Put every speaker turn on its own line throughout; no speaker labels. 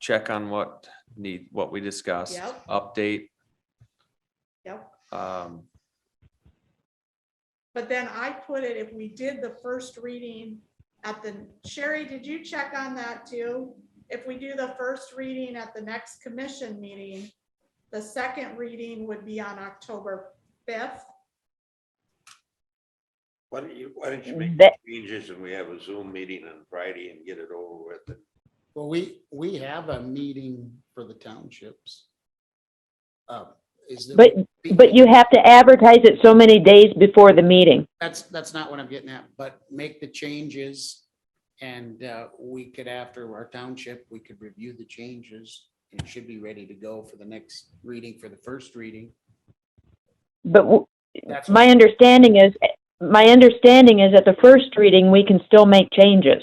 check on what need, what we discussed,
Yep.
update.
Yep.
Um,
But then I put it, if we did the first reading at the, Sherry, did you check on that too? If we do the first reading at the next commission meeting, the second reading would be on October fifth.
Why don't you, why don't you make
That-
changes and we have a Zoom meeting on Friday and get it over with? and
Well, we, we have a meeting for the townships. Uh, Is there?
But, but you have to advertise it so many days before the meeting.
That's, that's not what I'm getting at, but make the changes. And uh, we could, after our township, we could review the changes and should be ready to go for the next reading, for the first reading.
But w-
That's
my understanding is, my understanding is at the first reading, we can still make changes.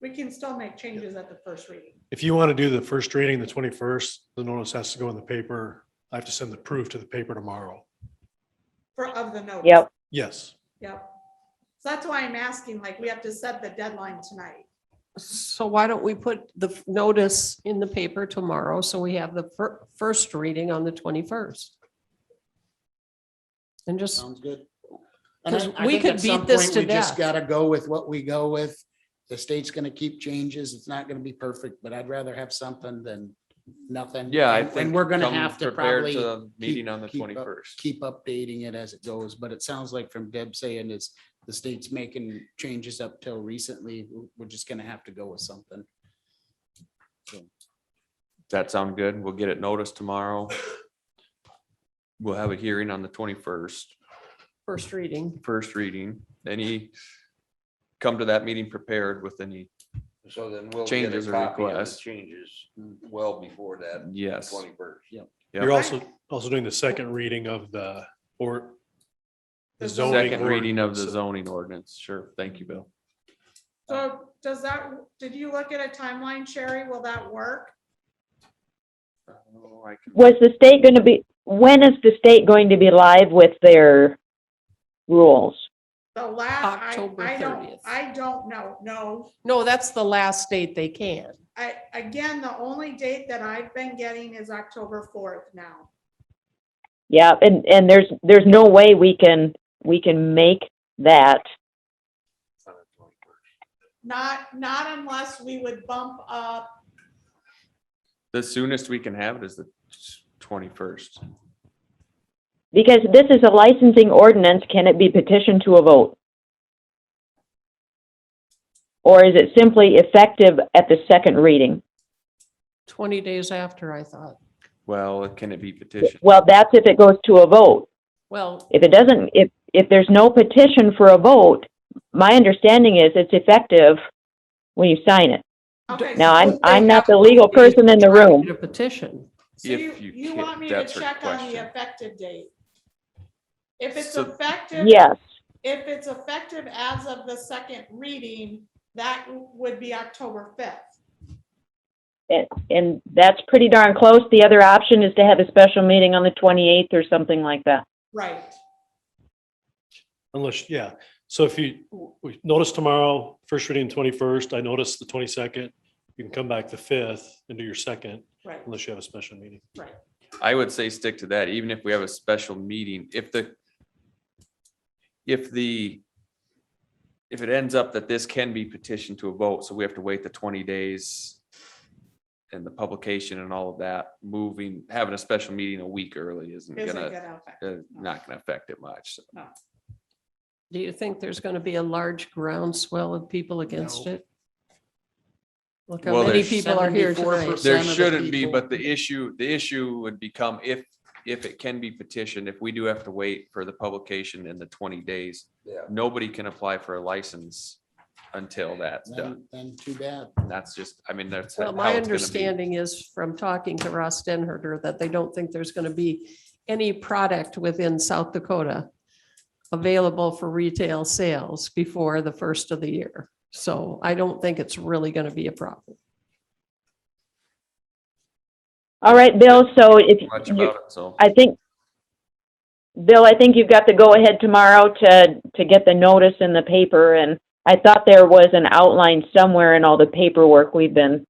We can still make changes at the first reading.
If you want to do the first reading, the twenty-first, the notice has to go in the paper. I have to send the proof to the paper tomorrow.
For, of the notice.
Yep.
Yes,
Yep. So that's why I'm asking, like, we have to set the deadline tonight.
So why don't we put the f- notice in the paper tomorrow, so we have the fir- first reading on the twenty-first? And just,
Um,
Sounds good. And I-
'Cause
I
we
think
could
at some
beat this
point,
to
we just
death.
Gotta go with what we go with. The state's gonna keep changes. It's not gonna be perfect, but I'd rather have something than nothing.
yeah, I
And-
think.
And we're gonna
come
have to
prepared
probably
to the Meeting on the
keep up-
twenty-first.
keep updating it as it goes, but it sounds like from Deb saying is the state's making changes up till recently. We're- We're just gonna have to go with something.
That sound good? We'll get it noticed tomorrow. We'll have a hearing on the twenty-first,
first reading,
first reading. Any, come to that meeting prepared with any,
So then we'll get
Changes
a
or
copy of the
requests.
changes well before that
yes,
twenty-first.
Yeah.
you're also, also doing the second reading of the, or
The
the zoning.
second reading of the
ordinance.
zoning ordinance. Sure. Thank you, Bill.
So does that, did you look at a timeline, Sherry? Will that work?
Oh, I can-
Was the state going to be, when is the state going to be live with their rules?
The last, I,
October
I don't,
30th.
I don't know, no.
no, that's the last date they can.
I, again, the only date that I've been getting is October fourth now.
Yeah, and, and there's, there's no way we can, we can make that.
Not, not unless we would bump up,
The soonest we can have it is the twenty-first.
Because this is a licensing ordinance, can it be petitioned to a vote? Or is it simply effective at the second reading?
Twenty days after, I thought.
Well, can it be petitioned?
Well, that's if it goes to a vote.
Well,
If it doesn't, if, if there's no petition for a vote, my understanding is it's effective when you sign it.
okay.
Now,
so-
I'm,
they
I'm not
have
the
to
legal
be
person in the room.
a petition.
So
If you
you, you
can-
want me to
that's her
check on the
question.
effective date? If it's
So-
effective,
Yes,
if it's effective as of the second reading, that would be October fifth.
and that's pretty darn close. The other option is to have a special meeting on the 28th or something like that.
Right,
Unless, yeah, so if you, we notice tomorrow, first reading twenty-first, I notice the twenty-second. You can come back the fifth and do your second,
right,
unless you have a special meeting.
right.
I would say stick to that, even if we have a special meeting, if the. If the. If it ends up that this can be petitioned to a vote, so we have to wait the twenty days. And the publication and all of that, moving, having a special meeting a week early isn't
Isn't
gonna,
gonna affect-
uh, not gonna affect it much. So
Do you think there's gonna be a large groundswell of people against it? Look how
Well,
many
there's-
people are here tonight.
74%.
There
Some of the
shouldn't be,
people-
but the issue, the issue would become if, if it can be petitioned, if we do have to wait for the publication in the twenty days.
Yeah.
Nobody can apply for a license until that's done.
Then, then too bad.
That's just, I mean, that's. how
Well, my
it's gonna be.
understanding is from talking to Ross Denherter that they don't think there's going to be any product within South Dakota available for retail sales before the first of the year. So I don't think it's really going to be a problem.
All right, Bill, so if,
Much
you-
about it, so.
I think, Bill, I think you've got the go-ahead tomorrow to, to get the notice in the paper, and I thought there was an outline somewhere in all the paperwork we've been